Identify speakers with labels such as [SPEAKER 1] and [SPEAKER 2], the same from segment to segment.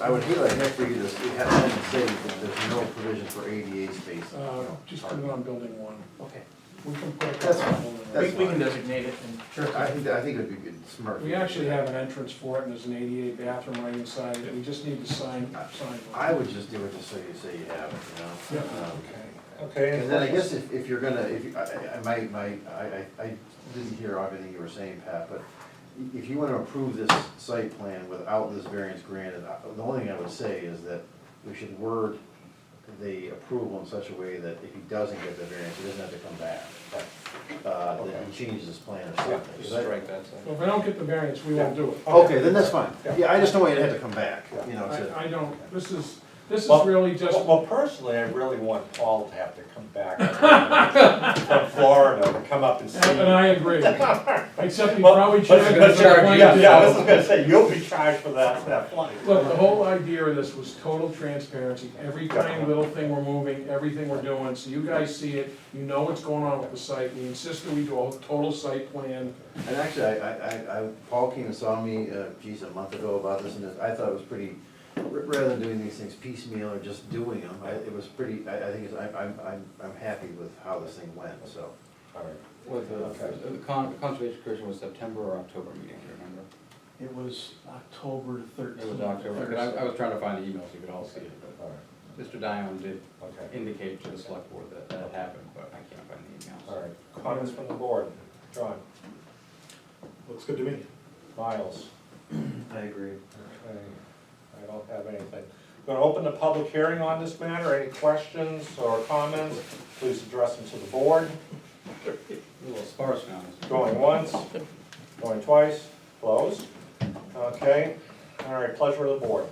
[SPEAKER 1] I would hate like heck for you to s- have someone say that there's no provision for ADA space.
[SPEAKER 2] Uh, just put it on building one.
[SPEAKER 3] Okay,
[SPEAKER 2] We can put it
[SPEAKER 1] That's
[SPEAKER 2] on
[SPEAKER 1] fine.
[SPEAKER 2] building one.
[SPEAKER 3] we,
[SPEAKER 1] That's
[SPEAKER 3] we
[SPEAKER 1] fine.
[SPEAKER 3] can designate it and.
[SPEAKER 1] I think, that- I think it'd be good, smart.
[SPEAKER 2] We actually have an entrance for it, and there's an ADA bathroom right inside, it. we just need to sign, sign.
[SPEAKER 1] I would just do it just so you say you have it, you
[SPEAKER 2] Yeah,
[SPEAKER 1] know? Um,
[SPEAKER 2] okay.
[SPEAKER 4] Okay.
[SPEAKER 1] And then I guess if, if you're gonna, if, you- I, I- I, my, my, I, I I didn't hear everything you were saying, Pat, but i- if you wanna approve this site plan without this variance granted, I- the only thing I would say is that we should word the approval in such a way that if he doesn't get the variance, he doesn't have to come back. Uh, that he changes his plan or
[SPEAKER 4] Yeah,
[SPEAKER 1] something.
[SPEAKER 4] just
[SPEAKER 1] Is that-
[SPEAKER 4] strike that side.
[SPEAKER 2] Well, if I don't get the variance, we won't do it.
[SPEAKER 1] Okay, then that's fine.
[SPEAKER 4] Yeah.
[SPEAKER 1] Yeah, I just don't want you to have to come back, you know, to.
[SPEAKER 2] I, I don't, this is, this is
[SPEAKER 4] Well,
[SPEAKER 2] really just,
[SPEAKER 4] Well, well, personally, I really want Paul to have to come back from Florida to come up and see.
[SPEAKER 2] and I agree, except you
[SPEAKER 4] Well,
[SPEAKER 2] probably
[SPEAKER 4] but-
[SPEAKER 2] charge
[SPEAKER 4] but
[SPEAKER 2] us a
[SPEAKER 4] you're-
[SPEAKER 2] fine
[SPEAKER 4] Yeah, yeah, I was
[SPEAKER 2] to-
[SPEAKER 4] just gonna say, you'll be charged for that, that flight.
[SPEAKER 2] Look, the whole idea of this was total transparency, every tiny little thing we're moving, everything we're doing, so you guys see it, you know what's going on with the site, we insist that we do a total site plan.
[SPEAKER 1] And actually, I, I, I, I- Paul came and saw me, uh, geez, a month ago about this, and this- I thought it was pretty, r- rather than doing these things piecemeal or just doing them, I, it was pretty, I, I think, it's- I'm, I'm, I'm, I'm happy with how this thing went, so.
[SPEAKER 4] All right.
[SPEAKER 5] Well, the, the con, the conservation commission was September or October meeting, do you remember?
[SPEAKER 6] It was October thirteenth.
[SPEAKER 5] It was October, 'cause I, I was trying to find the emails, you could all see it,
[SPEAKER 4] All
[SPEAKER 5] but Mr. Dion did
[SPEAKER 4] right, okay,
[SPEAKER 5] indicate to the select board that that had happened, but I can't find the emails.
[SPEAKER 4] all right. Comments from the board, John? Looks good to me. Miles?
[SPEAKER 1] I agree.
[SPEAKER 4] Okay, I don't have anything. Going to open the public hearing on this matter. Any questions or comments? Please address them to the board.
[SPEAKER 5] A little sparse now. isn't it?
[SPEAKER 4] Going once, going twice, closed. Okay, all right, pleasure of the board.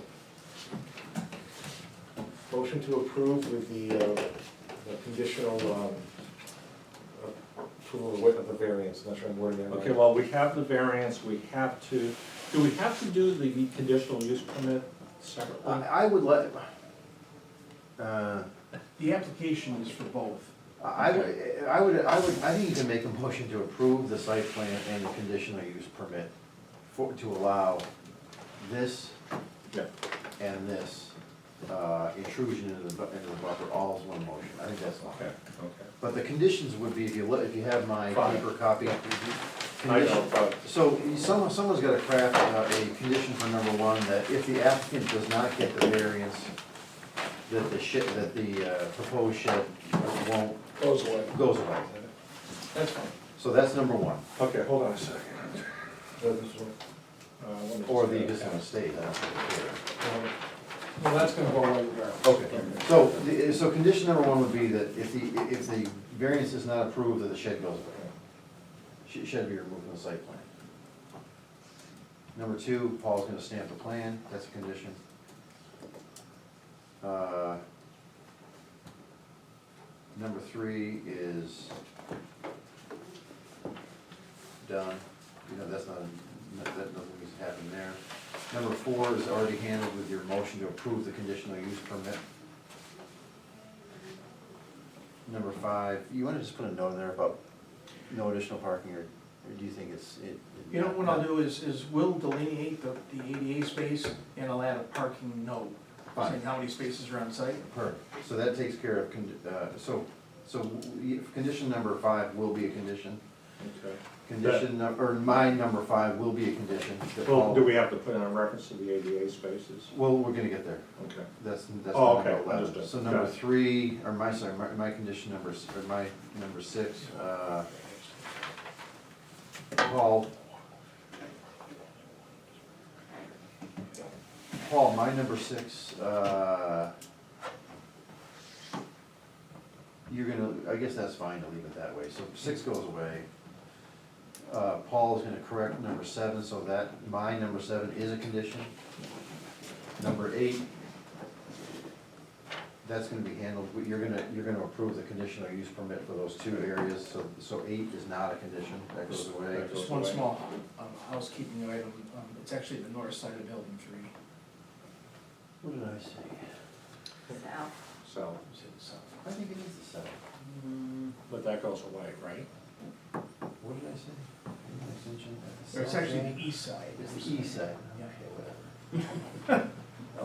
[SPEAKER 7] Motion to approve with the, uh, the conditional, um, approval of wit- of the variance, I'm not sure I'm wording that right.
[SPEAKER 4] Okay, well, we have the variance, we have to, do we have to do the conditional use permit
[SPEAKER 1] I,
[SPEAKER 4] separately?
[SPEAKER 1] Um, I would let, uh,
[SPEAKER 6] The application is for both.
[SPEAKER 1] I, I would, I would, I would, I think you can make a motion to approve the site plan and the conditional use permit for, to allow this
[SPEAKER 4] Yeah.
[SPEAKER 1] and this, uh, intrusion into the, bu- into the buffer, all as one motion, I think that's fine.
[SPEAKER 4] Okay, okay.
[SPEAKER 1] But the conditions would be, if you look, if you have my
[SPEAKER 4] Fine.
[SPEAKER 1] paper copy.
[SPEAKER 4] I
[SPEAKER 1] condition-
[SPEAKER 4] know, but
[SPEAKER 1] So someone, someone's gotta craft uh, a condition for number one, that if the applicant does not get the variance, that the shed, that the uh, proposed shed won't,
[SPEAKER 2] Goes away,
[SPEAKER 1] goes away.
[SPEAKER 2] that's fine.
[SPEAKER 1] So that's number one,
[SPEAKER 4] Okay, hold on a second.
[SPEAKER 7] Uh, this one.
[SPEAKER 4] Uh, let me
[SPEAKER 1] or
[SPEAKER 4] just-
[SPEAKER 1] the existing state, I don't care.
[SPEAKER 2] Well, that's gonna go away regardless.
[SPEAKER 1] Okay, so, the- so condition number one would be that if the, if the variance is not approved, that the shed goes away. Sh- Shed be removed from the site plan. Number two, Paul's gonna stamp the plan, that's a condition. Uh, Number three is done, you know, that's not, that, that nothing needs to happen there. Number four is already handled with your motion to approve the conditional use permit. Number five, you wanna just put a note in there about no additional parking, or, or do you think it's, it? it-
[SPEAKER 6] You know, what I'll do is, is we'll delineate the, the ADA space and I'll add a parking note,
[SPEAKER 1] Fine.
[SPEAKER 6] saying how many spaces are on site.
[SPEAKER 1] Perfect, so that takes care of, condi- uh, so, so we- condition number five will be a condition.
[SPEAKER 4] Okay.
[SPEAKER 1] Condition num, or my number five will be a condition. that
[SPEAKER 4] Well,
[SPEAKER 1] all-
[SPEAKER 4] do we have to put in a reference to the ADA spaces?
[SPEAKER 1] Well, we're gonna get there.
[SPEAKER 4] Okay.
[SPEAKER 1] That's, that's
[SPEAKER 4] Oh,
[SPEAKER 1] number
[SPEAKER 4] okay,
[SPEAKER 1] eleven.
[SPEAKER 4] understood.
[SPEAKER 1] So number
[SPEAKER 4] Got it.
[SPEAKER 1] three, or my, sorry, my, my condition number, s- or my number six, uh, Paul. Paul, my number six, uh, you're gonna, I guess that's fine to leave it that way, so six goes away. Uh, Paul is gonna correct number seven, so that, my number seven is a condition. Number eight, that's gonna be handled, but you're gonna, you're gonna approve the conditional use permit for those two areas, so, so eight is not a condition, that goes away.
[SPEAKER 6] Just one small um, housekeeping item, um, it's actually the north side of building three.
[SPEAKER 1] What did I say?
[SPEAKER 4] So,
[SPEAKER 6] uh,
[SPEAKER 1] I think it is the seven.
[SPEAKER 6] Mm,
[SPEAKER 4] but that goes away, right?
[SPEAKER 1] What did I say? Extension at the
[SPEAKER 6] Or it's
[SPEAKER 1] south
[SPEAKER 6] actually
[SPEAKER 1] end?
[SPEAKER 6] the east side.
[SPEAKER 1] It's the east side.
[SPEAKER 6] Yeah.
[SPEAKER 1] Okay,